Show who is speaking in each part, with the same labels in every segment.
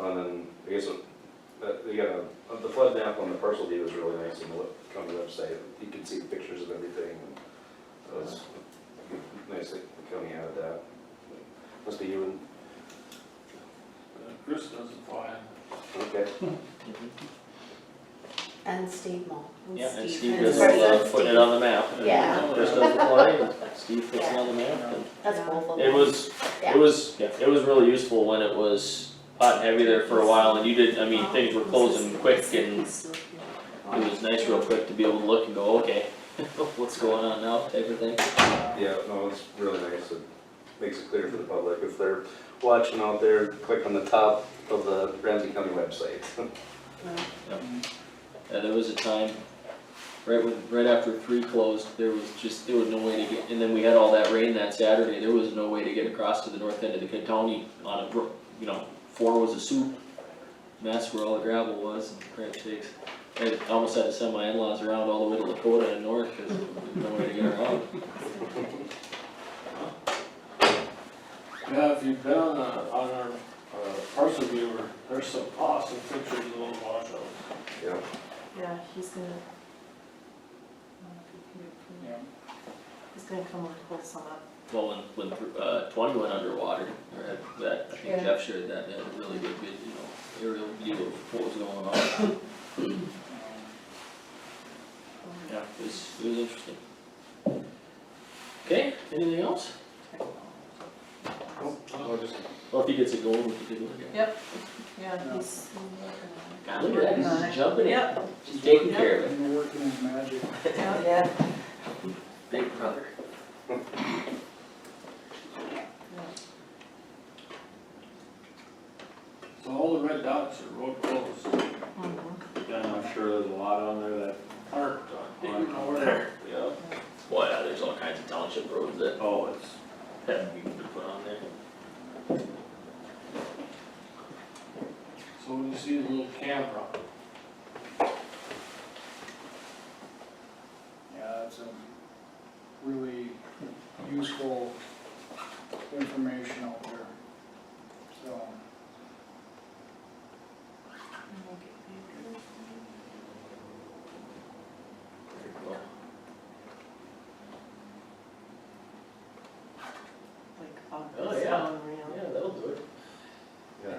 Speaker 1: And then, I guess, that, you got a- the flood map on the parcel deed was really nice, and the, web- on the website, you can see pictures of everything. That was nice that the county added that. Must be you and,
Speaker 2: Uh, Chris doesn't fly.
Speaker 1: okay.
Speaker 3: And Steve Moll.
Speaker 4: Yeah, and Steve
Speaker 3: And
Speaker 4: does
Speaker 3: first
Speaker 4: uh,
Speaker 3: that's
Speaker 4: putting it
Speaker 3: Steve.
Speaker 4: on the map. and
Speaker 3: Yeah.
Speaker 4: Chris does the play, and Steve puts it on the map,
Speaker 3: That's both of
Speaker 4: and
Speaker 3: them.
Speaker 4: it was,
Speaker 3: Yeah.
Speaker 4: it was, it was really useful when it was hot and heavy there for a while, and you did, I mean, things were closing quick, and it was nice real quick to be able to look and go, okay, what's going on now, type of thing.
Speaker 1: Yeah, no, it's really nice, it makes it clear for the public, if they're watching out there, click on the top of the Ramsey County website.
Speaker 4: Uh, there was a time, right when, right after three closed, there was just, there was no way to get, and then we had all that rain that Saturday, there was no way to get across to the north end of the county on a, bro- you know, four was a soup. Mess where all the gravel was and crap shakes. I almost had to send my in-laws around all the way to Lakota and north, cause there's no way to get around.
Speaker 2: Yeah, if you've been on, uh, on our, uh, parcel viewer, there's some awesome pictures of those washouts.
Speaker 1: Yeah,
Speaker 5: Yeah, he's gonna.
Speaker 2: Yeah.
Speaker 5: He's gonna come and pull some up.
Speaker 4: Well, when, when, uh, twenty went underwater, or had that, I think
Speaker 5: Yeah.
Speaker 4: Jeff shared that, they had a really good, vid- you know, aerial view of what was going on. Yeah, it was, it was interesting. Okay, anything else?
Speaker 2: Oh,
Speaker 1: I'll just
Speaker 4: Well, if he gets a goal, we can take a look at it.
Speaker 5: Yeah, he's.
Speaker 4: God, look at that, he's jumping in,
Speaker 5: Yep,
Speaker 4: he's taking care of it.
Speaker 6: And you're working in magic.
Speaker 5: yeah.
Speaker 4: Big brother.
Speaker 2: So all the red dots are road closed.
Speaker 5: Mm-hmm.
Speaker 2: And I'm sure there's a lot on there that aren't, didn't even know where they're. Yeah.
Speaker 4: Well, yeah, there's all kinds of township roads that
Speaker 2: Oh, it's,
Speaker 4: haven't even been put on there.
Speaker 2: so when you see the little camera,
Speaker 6: Yeah, it's a really useful information out there, so.
Speaker 4: Very cool.
Speaker 5: Like, oh,
Speaker 4: Oh,
Speaker 5: it's
Speaker 4: yeah.
Speaker 5: unreal.
Speaker 4: Yeah, that'll do it.
Speaker 1: Yeah.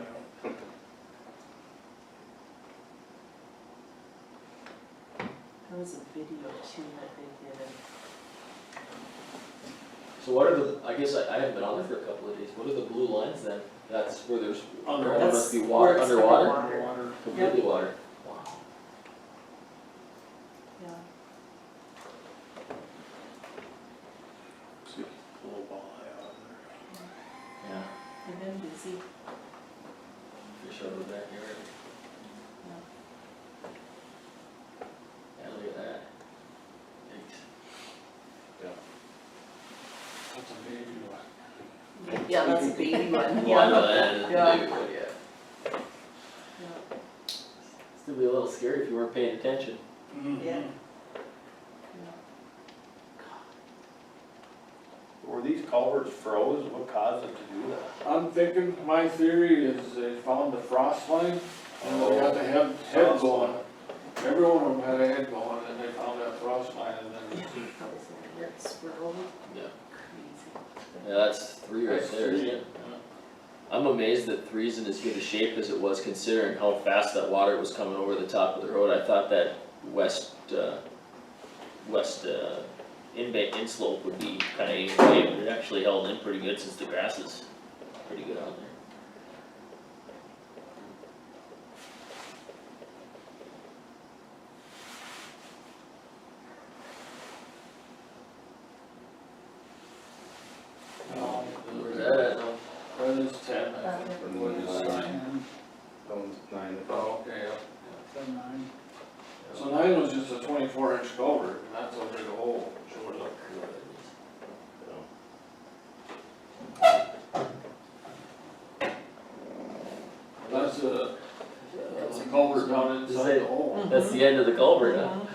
Speaker 5: There was a video too that they did, and
Speaker 4: So what are the, I guess I, I haven't been on there for a couple of days, what are the blue lines then? That's where there's, there
Speaker 2: underwater,
Speaker 4: must be
Speaker 5: That's
Speaker 4: water,
Speaker 5: where it's
Speaker 4: underwater,
Speaker 5: Water.
Speaker 6: Water,
Speaker 4: completely water. Wow.
Speaker 5: yeah.
Speaker 2: see, a little ball eye out there.
Speaker 4: Yeah,
Speaker 5: They've been busy.
Speaker 4: fish out of the backyard. Yeah, look at that. Thanks.
Speaker 2: That's a baby one.
Speaker 5: Yeah, that's a baby one,
Speaker 4: Well, I know that is
Speaker 5: Yeah.
Speaker 4: new, but yeah. Still be a little scary if you weren't paying attention.
Speaker 2: Mm-hmm.
Speaker 5: Yeah.
Speaker 2: Were these culverts froze? What caused them to do that? I'm thinking, my theory is they found the frost line and they got the head, head
Speaker 1: Frost
Speaker 2: going. Every one of them had a head going and they found that frost line and then.
Speaker 5: That was a weird swirl,
Speaker 4: Yeah.
Speaker 5: crazy.
Speaker 4: Yeah, that's three right
Speaker 2: That's
Speaker 4: there, isn't
Speaker 2: three.
Speaker 4: it? I'm amazed that three's in as good a shape as it was considering how fast that water was coming over the top of the road. I thought that west, uh, west, uh, inbank, inslope would be kinda even way, but it actually held in pretty good since the grass is pretty good on there.
Speaker 2: Um,
Speaker 4: Where's that at though?
Speaker 2: That is ten, I
Speaker 5: Uh,
Speaker 2: think.
Speaker 1: yeah.
Speaker 2: What is it, nine?
Speaker 5: Mm-hmm.
Speaker 6: ten,
Speaker 1: That one's nine.
Speaker 2: Oh, okay, yeah.
Speaker 6: ten, nine.
Speaker 2: So nine was just a twenty-four inch culvert and that's a big hole. Sure look. That's a, that's a culvert down
Speaker 4: Is
Speaker 2: inside
Speaker 4: it-
Speaker 2: the hole.
Speaker 4: That's the end of the culvert, huh?
Speaker 5: Mhm.